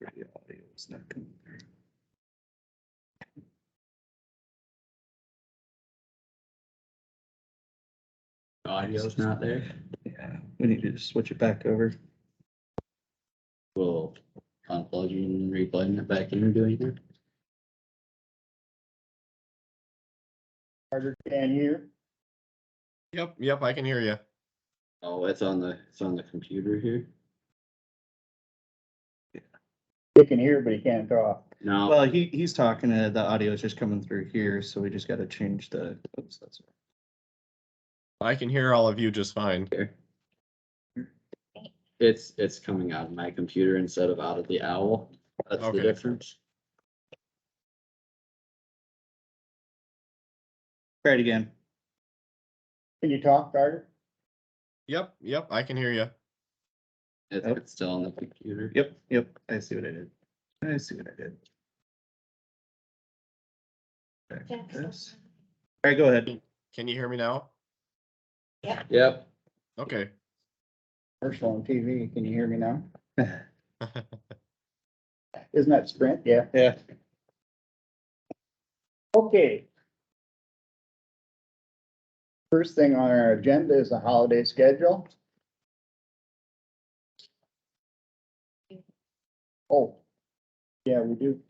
the audio is not coming through. Audio's not there. Yeah, we need to just switch it back over. We'll unplug you and replug it back in and do anything. Carter can hear. Yep, yep, I can hear you. Oh, it's on the, it's on the computer here. He can hear, but he can't talk. No, Well, he, he's talking, uh, the audio is just coming through here, so we just gotta change the. oops, that's- I can hear all of you just fine. it's, it's coming out of my computer instead of out of the owl. That's the Okay. difference. Try it again. Can you talk, Carter? Yep, yep, I can hear you. It's, Yep. it's still on the computer. Yep, yep, I see what I did. I see what I did. Back to this. All right, go ahead. Can you hear me now? Yep. Okay. Commercial on TV, can you hear me now? All Isn't that Sprint? Yeah. Yeah. Okay. First thing on our agenda is the holiday schedule. Oh, yeah, we do.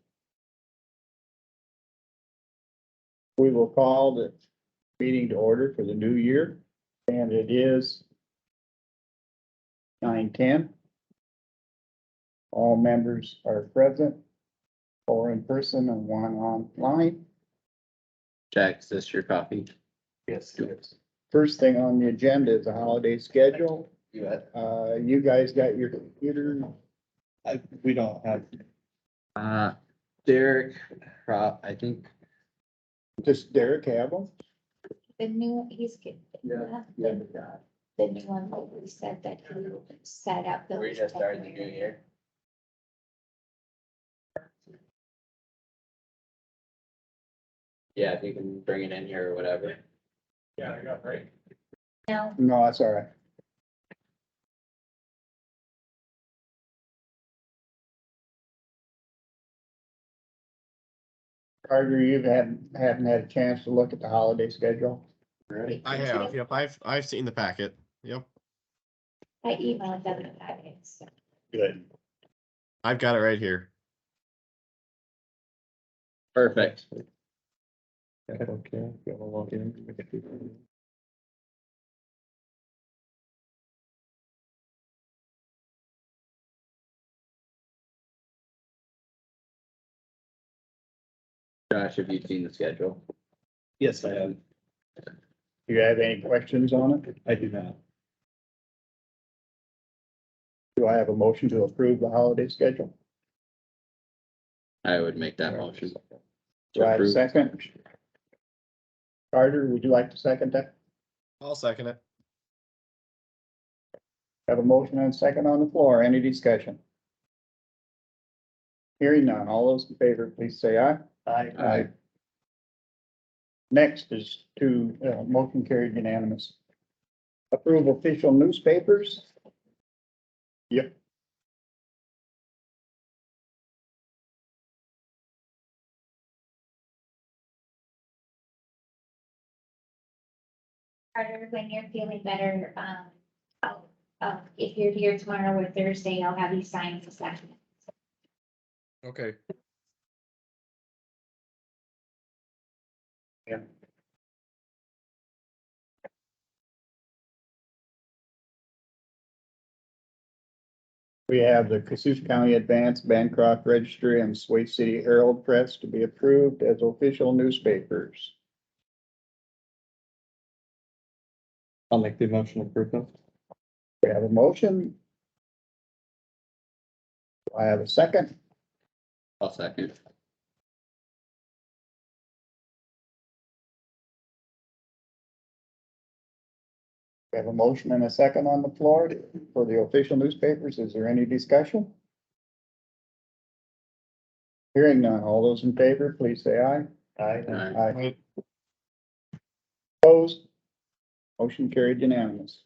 We will call the meeting to order for the new year, and it is nine ten. All members are present, four in person and one online. Jack, is this your copy? Yes. First thing on the agenda is the holiday schedule. You bet. Uh, you guys got your computer? I, we don't have. Uh, Derek, Pro- I think, Just Derek have them? The new, he's getting. Yeah. The new one, that we said that he set up. the. We're just starting the new year. yeah, if you can bring it in here or whatever. Yeah, I got right. No, No, that's all right. Carter, you haven't, haven't had a chance to look at the holiday schedule? Right. I have, yep, I've, I've seen the packet. Yep, I emailed them about it, so. Good. I've got it right here. Perfect. Okay, gotta log in. Josh, have you seen the schedule? Yes, I have. Do you have any questions on it? I do not. Do I have a motion to approve the holiday schedule? I would make that motion. Do I have a Approve. second? Carter, would you like to second that? I'll second it. Have a motion and a second on the floor. Any discussion? Hearing none. All those in favor, please say aye. Aye. Aye. Next is to, uh, motion carried unanimous. Approve official newspapers. Yep. Carter, when you're feeling better, um, I'll, uh, if you're here tomorrow or Thursday, I'll have you sign this document. Okay. We have the Cassuth County Advance, Bancroft Registry, and Sway City Herald Press to be approved as official newspapers. I'll make the motion approval. We have a motion. Do I have a second. I'll second. We have a motion and a second on the floor for the official newspapers. Is there any discussion? Hearing none. All those in favor, please say aye. Aye. Aye. Opposed? Motion carried unanimous.